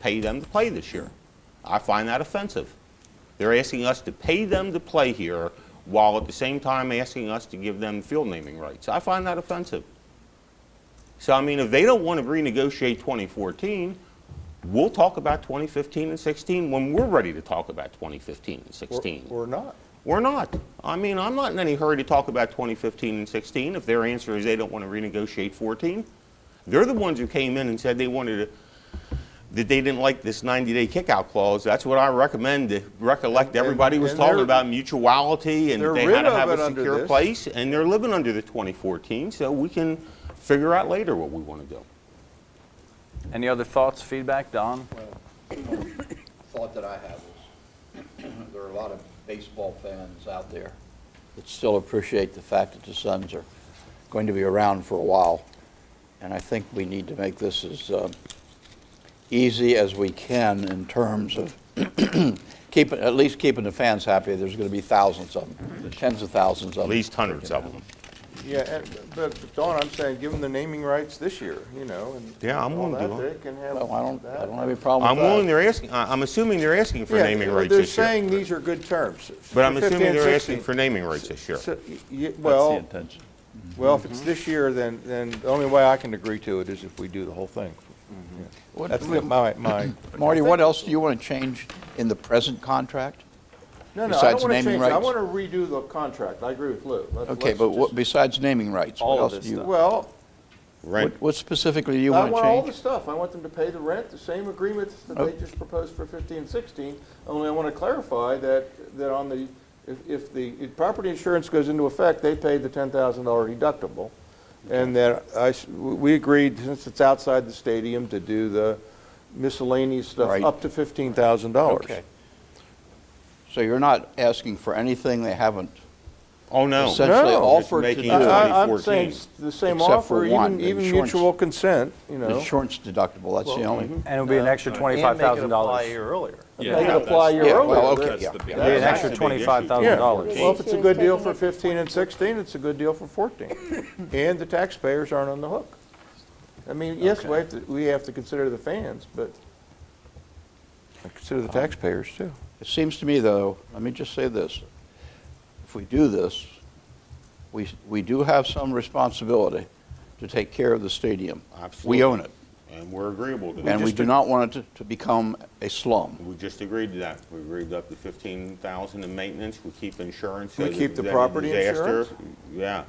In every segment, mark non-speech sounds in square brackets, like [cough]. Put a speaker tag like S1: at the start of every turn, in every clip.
S1: pay them to play this year. I find that offensive. They're asking us to pay them to play here while at the same time asking us to give them field naming rights. I find that offensive. So, I mean, if they don't want to renegotiate 2014, we'll talk about 2015 and 16 when we're ready to talk about 2015 and
S2: Or-
S1: 16.
S2: Or not.
S1: We're not. I mean, I'm not in any hurry to talk about 2015 and 16. If their answer is they don't want to renegotiate 14, they're the ones who came in and said they wanted to, that they didn't like this 90-day kickout clause. That's what I recommend. to Recollect, everybody was
S2: and
S1: talking
S2: they're-
S1: about mutuality and that
S2: they're
S1: they had
S2: rid
S1: to
S2: of
S1: have
S2: it
S1: a
S2: under
S1: secure
S2: this.
S1: place. And they're living under the 2014, so we can figure out later what we want to do.
S3: Any other thoughts, feedback, Don?
S4: thought that I have is, [clears throat] there are a lot of baseball fans out there that still appreciate the fact that the Suns are going to be around for a while. And I think we need to make this as uh, easy as we can in terms of [clears throat] keeping, at least keeping the fans happy. There's going to be thousands of them, tens of thousands of them.
S1: At least hundreds of them.
S2: Yeah, and- but Don, I'm saying, give them the naming rights this year, you know, and.
S1: Yeah, I'm
S2: all
S1: willing to
S2: that,
S1: do it.
S2: They can have.
S4: Well, I don't, I
S2: that.
S4: don't have any problem
S1: I'm
S4: with that.
S1: willing, they're asking, I- I'm assuming they're asking for
S2: Oh Yeah,
S1: naming rights
S2: They're
S1: this year.
S2: saying these are good terms.
S1: But I'm
S2: 15
S1: assuming
S2: and
S1: they're asking
S2: 16.
S1: for naming rights this year. Mm-hmm.
S2: So, y- y- Well, well, if it's this year, then, then the only way I can agree to it is if we do the whole thing. Yeah.
S4: What-
S2: That's the- my, my,
S4: [clears throat] Marty, what else do you want to change in the present contract?
S2: no, no, I don't want
S4: Besides
S2: to
S4: naming
S2: change, it. I
S4: rights?
S2: want to redo the contract. I agree with Lou. Let's-
S4: Okay,
S2: let's
S4: but what-
S2: just-
S4: besides naming rights, what
S5: All
S4: else
S5: of this
S4: do you?
S2: Well,
S1: Right.
S4: What- What specifically do you
S6: Uh,
S2: I
S4: want to
S2: want all the
S4: change?
S2: stuff. I want them to pay the rent, the same agreements that they just proposed for 15 and 16, only I want to clarify that, that on the, if, if the, if property insurance goes into effect, they pay the $10,000 deductible. And that I, s- we agreed, since it's outside the stadium, to do the miscellaneous stuff
S4: Right.
S2: up to $15,000.
S4: Okay. So you're not asking for anything they haven't
S1: Oh, no.
S4: essentially
S2: No.
S4: offered to
S1: Just
S4: do?
S1: making it-
S2: I- I- I'm
S1: 2014.
S2: saying s- the same
S4: Except for
S2: offer,
S4: one,
S2: even, even
S4: insurance.
S2: mutual consent, you know.
S4: Insurance deductible, that's the
S6: mm-hmm.
S4: only.
S3: And it would be an extra
S5: And make it apply a
S3: $25,000.
S5: year earlier.
S2: They could apply your
S4: Yeah,
S2: earlier.
S4: well, okay,
S2: That's-
S4: yeah,
S5: the
S4: yeah.
S3: It'd be an
S2: That's
S3: extra
S1: a big issue.
S2: Yeah, well,
S3: $25,000.
S2: if it's a good deal for 15 and 16, it's a good deal for 14. [coughs] And the taxpayers aren't on the hook. I mean, yes, we have to, we have to consider the fans, but consider the taxpayers too.
S4: It seems to me, though, let me just say this. If we do this, we, we do have some responsibility to take care of the stadium.
S1: Absolutely.
S4: We own it,
S1: And we're agreeable to
S4: and
S1: that.
S4: we do not want it to- to become a slum.
S1: We just agreed to that. We agreed up to 15,000 in maintenance. We keep insurance. so
S2: We
S1: that
S2: keep
S1: if
S2: the
S1: there's any
S2: property
S1: disaster-
S2: insurance?
S1: Yeah.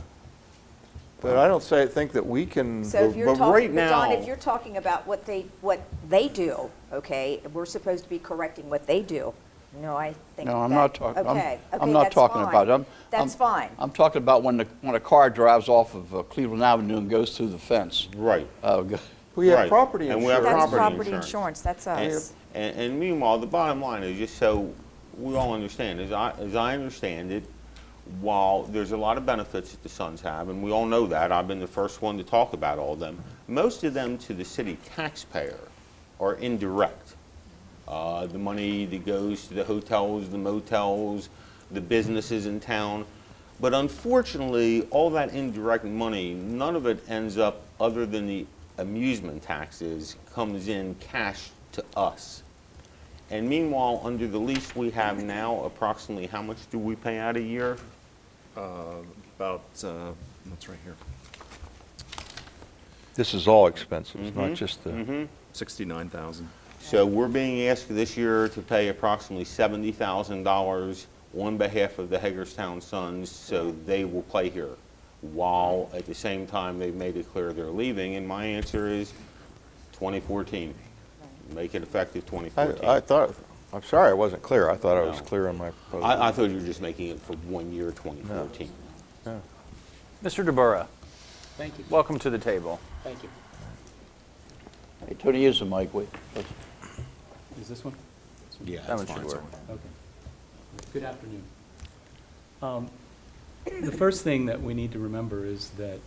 S2: But I don't say, think that we can,
S6: So if you're
S1: But right
S6: talking, but Don,
S1: now-
S6: if you're talking about what they, what they do, okay, we're supposed to be correcting what they do. No, I think that.
S4: No, I'm not talking, I'm,
S6: Okay, okay,
S4: I'm not
S6: that's
S4: talking
S6: fine.
S4: about it. I'm-
S6: That's
S4: I'm-
S6: fine.
S4: I'm talking about when the, when a car drives off of uh, Cleveland Avenue and goes through the fence.
S6: Mm-hmm.
S1: Right.
S4: Uh, go-
S2: we have
S1: Right.
S2: property
S1: And we have
S2: insurance.
S6: That's
S1: property
S6: property
S1: insurance.
S6: insurance, that's
S1: And
S6: us.
S1: and- and meanwhile, the bottom line is, just so we all understand, as I, as I understand it, while there's a lot of benefits that the Suns have, and we all know that, I've been the first one to talk about all of them, most of them to the city taxpayer are indirect. Uh, The money that goes to the hotels, the motels, the businesses in town. But unfortunately, all that indirect money, none of it ends up, other than the amusement taxes, comes in cash to us. And meanwhile, under the lease we have now, approximately how much do we pay out a year?
S5: About, uh, that's right here,
S2: This is all expenses, not just the.
S5: 69,000.
S1: So we're being asked this year to pay approximately $70,000 on behalf of the Hagerstown Suns, so they will play here, while at the same time they've made it clear they're leaving. And my answer is 2014. Make it effective
S2: I, I
S1: 2014.
S2: thought, I'm sorry I wasn't clear. I thought I was
S1: No.
S2: clear on my.
S1: I, I thought you were just making it for one year, 2014.
S3: Mr. DeBura,
S7: Thank you,
S3: welcome to the table.
S7: thank you.
S4: Hey, Tony, use the mic, wait.
S7: Is this one?
S5: Yeah.
S3: That one should work.
S7: Okay. Good afternoon. Um, The first thing that we need to remember is that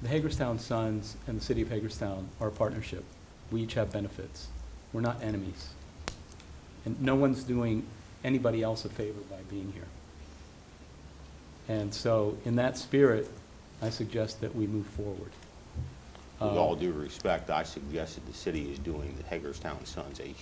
S7: the Hagerstown Suns and the city of Hagerstown are a partnership. We each have benefits. We're not enemies. And no one's doing anybody else a favor by being here. And so, in that spirit, I suggest that we move forward.
S1: With all due respect, I suggested the city is doing the Hagerstown Suns a